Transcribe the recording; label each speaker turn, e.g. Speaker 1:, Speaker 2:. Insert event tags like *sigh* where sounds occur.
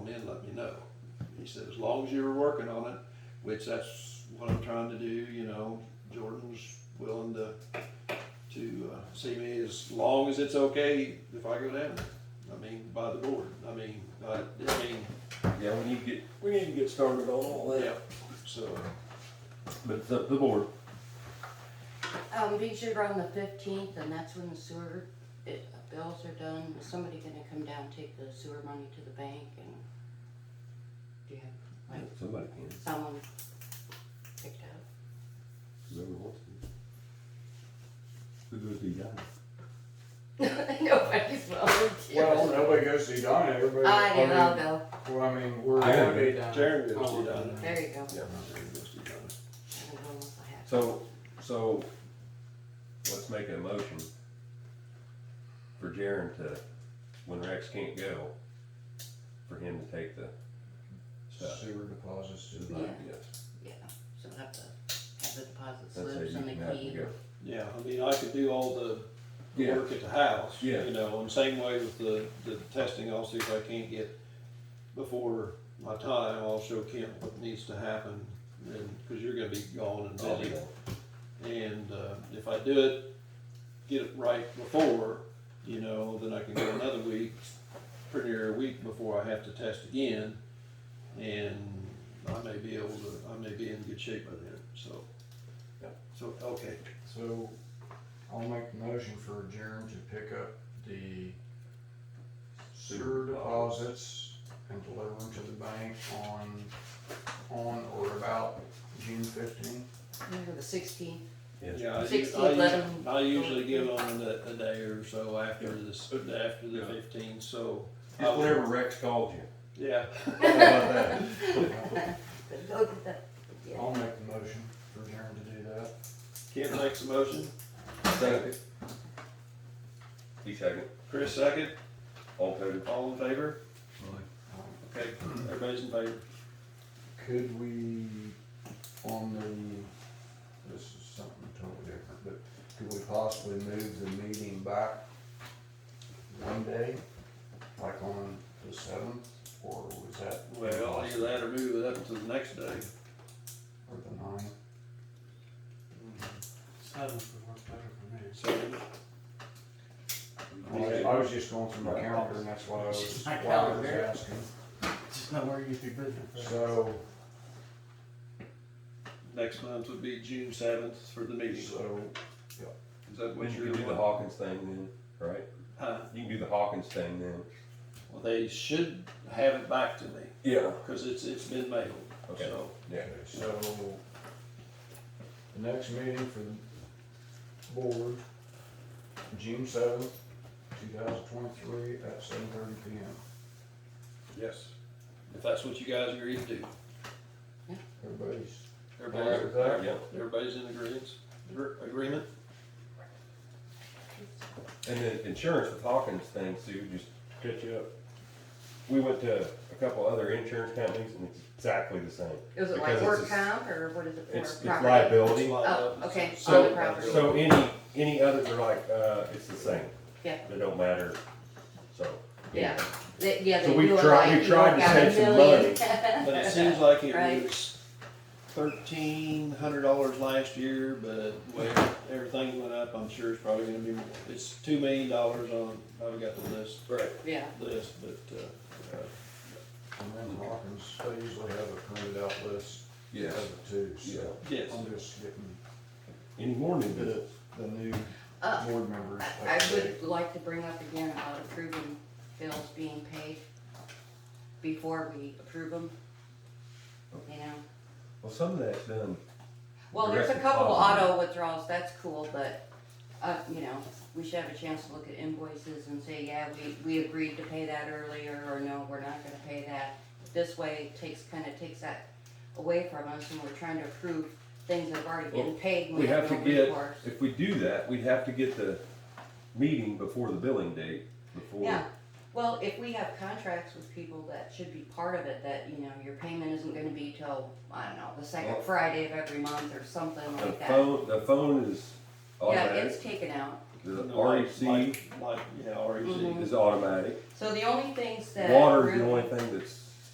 Speaker 1: no. He said, as long as you're working on it, which that's what I'm trying to do, you know, Jordan's willing to, to, uh, see me as long as it's okay if I go down. I mean, by the board, I mean, I, I mean,
Speaker 2: Yeah, we need to get, we need to get started on all
Speaker 1: yeah,
Speaker 2: that,
Speaker 1: so,
Speaker 2: but it's up to the board.
Speaker 3: Um, these are on the fifteenth, and that's when the sewer, it, bills are done, is somebody gonna come down, take the sewer money to the bank and? Do you have
Speaker 2: Somebody can,
Speaker 3: someone picked up?
Speaker 2: whoever wants to. Who goes to die?
Speaker 3: *laughs* Nobody's
Speaker 4: Well,
Speaker 3: volunteered.
Speaker 4: nobody goes to Edina, everybody.
Speaker 3: I do,
Speaker 4: mean,
Speaker 3: I'll go,
Speaker 4: Well, I mean, we're.
Speaker 2: I gotta
Speaker 4: be
Speaker 1: Jared goes to Edina.
Speaker 3: there you go. I
Speaker 1: yeah, Jared goes to Edina.
Speaker 3: don't know if I have-
Speaker 2: So, so, let's make a motion for Jaren to, when Rex can't go, for him to take the stuff.
Speaker 4: Sewer deposits to the.
Speaker 3: Yeah.
Speaker 2: Yes,
Speaker 3: Yeah, so I have to have the deposit
Speaker 2: that's it,
Speaker 3: slips
Speaker 2: you
Speaker 3: and the
Speaker 2: can have
Speaker 3: key.
Speaker 2: him go.
Speaker 1: Yeah, I mean, I could do all the the
Speaker 2: Yeah.
Speaker 1: work at the house,
Speaker 2: Yeah.
Speaker 1: you know, and same way with the, the testing, I'll see if I can't get before my time, I'll show Kent what needs to happen, and, cause you're gonna be gone and
Speaker 2: I'll be
Speaker 1: busy.
Speaker 2: there.
Speaker 1: And, uh, if I do it, get it right before, you know, then I can go another week, pretty near a week before I have to test again. And I may be able to, I may be in good shape by then, so.
Speaker 2: Yeah.
Speaker 1: So, okay,
Speaker 4: So I'll make the motion for Jaren to pick up the sewer deposits and deliver them to the bank on, on or about June fifteenth.
Speaker 3: Remember the sixteenth,
Speaker 1: Yeah, I, u-
Speaker 3: 16,
Speaker 1: I,
Speaker 3: let
Speaker 1: u-
Speaker 3: 'em
Speaker 1: I usually
Speaker 3: go.
Speaker 1: give them a, a day or so after this, after the
Speaker 2: Yeah.
Speaker 1: fifteenth, so. I
Speaker 2: Just
Speaker 1: would-
Speaker 2: whenever Rex called you.
Speaker 1: Yeah,
Speaker 2: How about that?
Speaker 3: but go get that,
Speaker 2: Oh.
Speaker 3: yeah.
Speaker 4: I'll make the motion for Jaren to do that.
Speaker 1: Kent makes a motion,
Speaker 2: Second. He second,
Speaker 1: Chris second,
Speaker 2: all in favor?
Speaker 1: all in favor? Okay, everybody's in favor.
Speaker 4: Could we, on the, this is something totally different, but could we possibly move the meeting back one day? Like on the seventh, or was that?
Speaker 1: Well, either that or move it up to the next day.
Speaker 4: Or the ninth?
Speaker 5: Seventh would work better for me.
Speaker 1: So,
Speaker 4: I was- I was just going through my calendar and that's why I was, why I was asking.
Speaker 5: Just not where you get your business.
Speaker 4: So,
Speaker 1: next month would be June seventh for the meeting. Is
Speaker 4: so,
Speaker 1: that
Speaker 2: When
Speaker 1: what
Speaker 2: you
Speaker 1: you're
Speaker 2: can do the
Speaker 1: doing?
Speaker 2: Hawkins thing then, right?
Speaker 1: Huh?
Speaker 2: You can do the Hawkins thing then.
Speaker 1: Well, they should have it back to me,
Speaker 2: Yeah.
Speaker 1: cause it's, it's been mailed,
Speaker 2: Okay.
Speaker 1: so.
Speaker 2: Yeah.
Speaker 4: so the next meeting for the board, June seventh, two thousand twenty-three at seven thirty P M.
Speaker 1: Yes. If that's what you guys agree to do.
Speaker 4: Everybody's
Speaker 1: Everybody's,
Speaker 4: All right.
Speaker 2: Yeah.
Speaker 1: everybody's in agreeance, Agre- agreement?
Speaker 2: And then insurance with Hawkins thing, Sue, just to catch you up. We went to a couple other insurance companies and it's exactly the same.
Speaker 3: Is it
Speaker 2: Because
Speaker 3: like
Speaker 2: it's
Speaker 3: work
Speaker 2: a-
Speaker 3: comp, or what is it for?
Speaker 2: It's, it's
Speaker 3: Property?
Speaker 2: liability.
Speaker 3: Oh, okay, on
Speaker 2: So-
Speaker 3: the property.
Speaker 2: So any, any others are like, uh, it's the same.
Speaker 3: Yeah.
Speaker 2: They don't matter, so.
Speaker 3: Yeah, They- yeah,
Speaker 2: So
Speaker 3: they
Speaker 2: we've
Speaker 3: do it
Speaker 2: tried-
Speaker 3: like
Speaker 2: we've
Speaker 3: you
Speaker 2: tried
Speaker 3: work
Speaker 2: to
Speaker 3: out
Speaker 2: save
Speaker 3: a
Speaker 2: some
Speaker 3: million.
Speaker 1: But it seems like it
Speaker 3: Right.
Speaker 1: was thirteen hundred dollars last year, but with everything went up, I'm sure it's probably gonna be more. It's two million dollars on, I've got the list,
Speaker 2: Right.
Speaker 3: Yeah,
Speaker 1: list, but, uh, uh,
Speaker 4: And then Hawkins, they usually have a printed out list
Speaker 2: Yeah.
Speaker 3: *laughs*
Speaker 4: of the two, so
Speaker 1: yes.
Speaker 4: I'm just getting
Speaker 2: Any more new
Speaker 4: the,
Speaker 2: business?
Speaker 4: the new
Speaker 3: uh,
Speaker 4: board members.
Speaker 3: I I would like to bring up again about approving bills being paid before we approve them. You know,
Speaker 2: Well, some of that's done.
Speaker 3: well, there's a
Speaker 2: Direct
Speaker 3: couple
Speaker 2: deposit.
Speaker 3: auto withdrawals, that's cool, but, uh, you know, we should have a chance to look at invoices and say, yeah, we, we agreed to pay that earlier, or no, we're not gonna pay that. This way it takes, kinda takes that away from us, and we're trying to approve things that have already been paid. when
Speaker 2: We have to
Speaker 3: no
Speaker 2: get,
Speaker 3: recourse.
Speaker 2: if we do that, we'd have to get the meeting before the billing date, before.
Speaker 3: Yeah, well, if we have contracts with people, that should be part of it, that, you know, your payment isn't gonna be till, I don't know, the
Speaker 2: Well-
Speaker 3: second Friday of every month or something
Speaker 2: The
Speaker 3: like that.
Speaker 2: phone, the phone is
Speaker 3: Yeah,
Speaker 2: automatic,
Speaker 3: it's taken out,
Speaker 2: the
Speaker 1: Like-
Speaker 2: REC
Speaker 1: Like, like, yeah, E REC.
Speaker 3: Mhm.
Speaker 2: is automatic,
Speaker 3: so the only things that.
Speaker 2: water is
Speaker 3: really-
Speaker 2: the only thing that's